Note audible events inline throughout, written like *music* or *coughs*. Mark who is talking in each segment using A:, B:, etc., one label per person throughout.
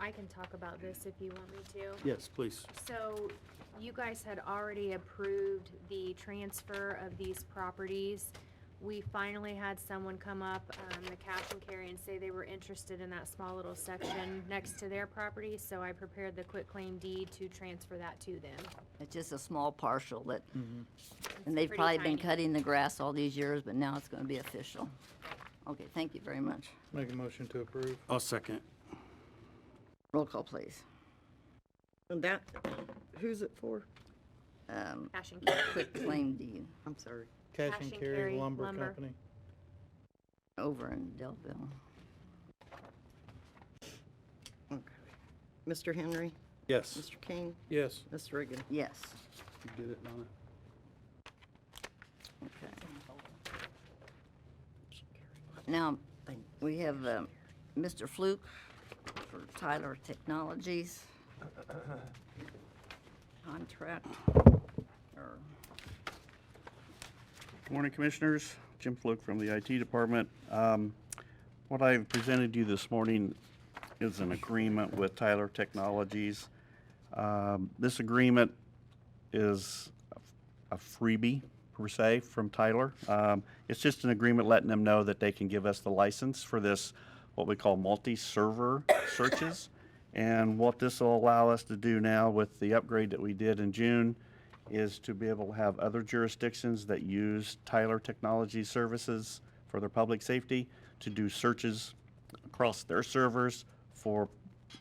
A: I can talk about this if you want me to.
B: Yes, please.
A: So you guys had already approved the transfer of these properties. We finally had someone come up, um, the cash and carry and say they were interested in that small little section next to their property, so I prepared the quitclaim deed to transfer that to them.
C: It's just a small partial that, and they've
A: pretty
C: probably been
A: tiny.
C: cutting the grass all these years, but now it's gonna be official. Okay, thank you very much.
D: Make a motion to approve.
B: I'll second.
C: Roll call, please.
E: And that, who's it for?
C: Um,
A: Cash and carry.
C: quick claim deed
E: I'm sorry.
D: Cash and carry lumber company.
C: over in Delville.
E: Okay. Mr. Henry,
B: Yes.
E: Mr. King,
D: Yes.
E: Ms. Reagan.
C: Yes,
B: You did it, Donna.
C: okay. Now, we have, um, Mr. Fluke for Tyler Technologies. Contract, or,
F: Morning, Commissioners. Jim Fluke from the IT Department. Um, What I've presented you this morning is an agreement with Tyler Technologies. Um, This agreement is a freebie, per se, from Tyler. Um, It's just an agreement letting them know that they can give us the license for this, what we call multi-server searches. And what this will allow us to do now with the upgrade that we did in June is to be able to have other jurisdictions that use Tyler Technology Services for their public safety to do searches across their servers for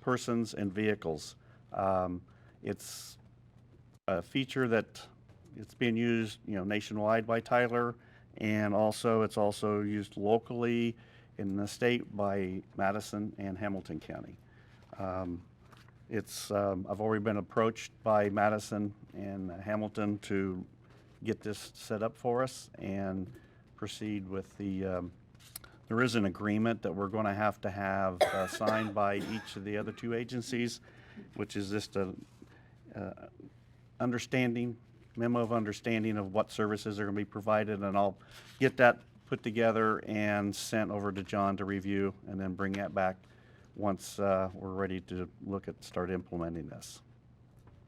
F: persons and vehicles. Um, It's a feature that it's being used, you know, nationwide by Tyler, and also, it's also used locally in the state by Madison and Hamilton County. Um, It's, um, I've already been approached by Madison and Hamilton to get this set up for us and proceed with the, um, there is an agreement that we're going to have to have uh, signed by each of the other two agencies, which is just a, understanding, memo of understanding of what services are going to be provided, and I'll get that put together and sent over to John to review, and then bring that back once uh, we're ready to look at, start implementing this.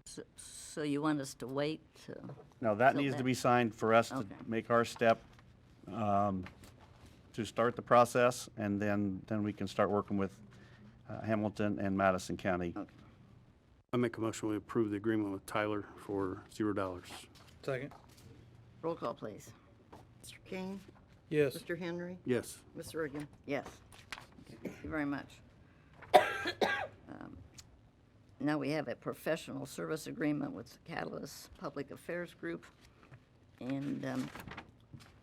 C: so, so you want us to wait to?
F: Now, that
C: Till
F: needs to
C: then.
F: be signed for us to
C: Okay.
F: make our step, um, to start the process, and then, then we can start working with uh, Hamilton and Madison County.
B: I make a motion, we approve the agreement with Tyler for zero dollars.
D: Second.
C: Roll call, please.
E: Mr. King,
D: Yes.
E: Mr. Henry,
B: Yes.
E: Ms. Reagan.
C: Yes. Thank you very much. Um, Now we have a professional service agreement with Catalyst Public Affairs Group. And um,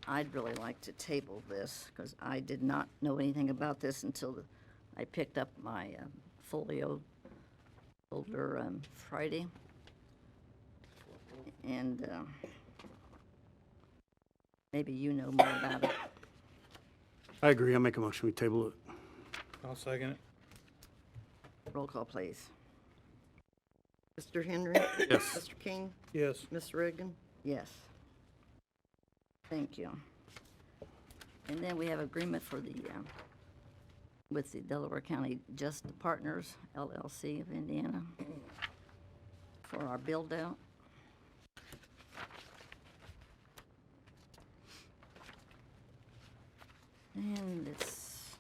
C: I'd really like to table this because I did not know anything about this until the- I picked up my um, folio folder um, Friday. And um, maybe you know more about it.
B: I agree. I make a motion, we table it.
D: I'll second it.
C: Roll call, please.
E: Mr. Henry. *coughs*
B: Yes.
E: Mr. King,
D: Yes.
E: Ms. Reagan.
C: Yes. Thank you. And then we have agreement for the, um, with the Delaware County Just Partners LLC of Indiana for our build-out. And it's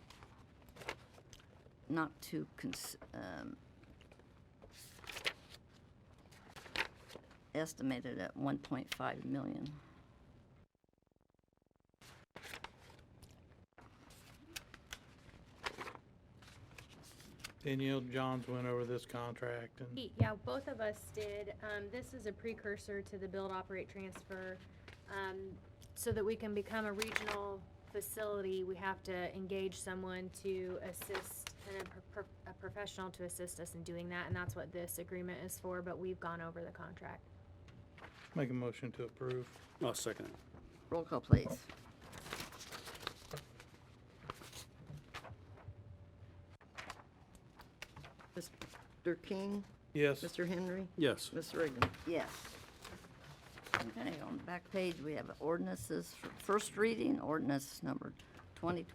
C: not too cons- um, estimated at 1.5 million.
D: Danielle Johns went over this contract and
A: He- Yeah, both of us did. Um, this is a precursor to the build, operate, transfer. Um, so that we can become a regional facility, we have to engage someone to assist and a, pro- pro- a professional to assist us in doing that, and that's what this agreement is for, but we've gone over the contract.
D: make a motion to approve.
B: I'll second it.
C: Roll call, please.
E: Mr. King,
D: Yes.
E: Mr. Henry,
B: Yes.
E: Ms. Reagan.
C: Yes. Okay, on the back page, we have ordinances for first reading, ordinance number 2020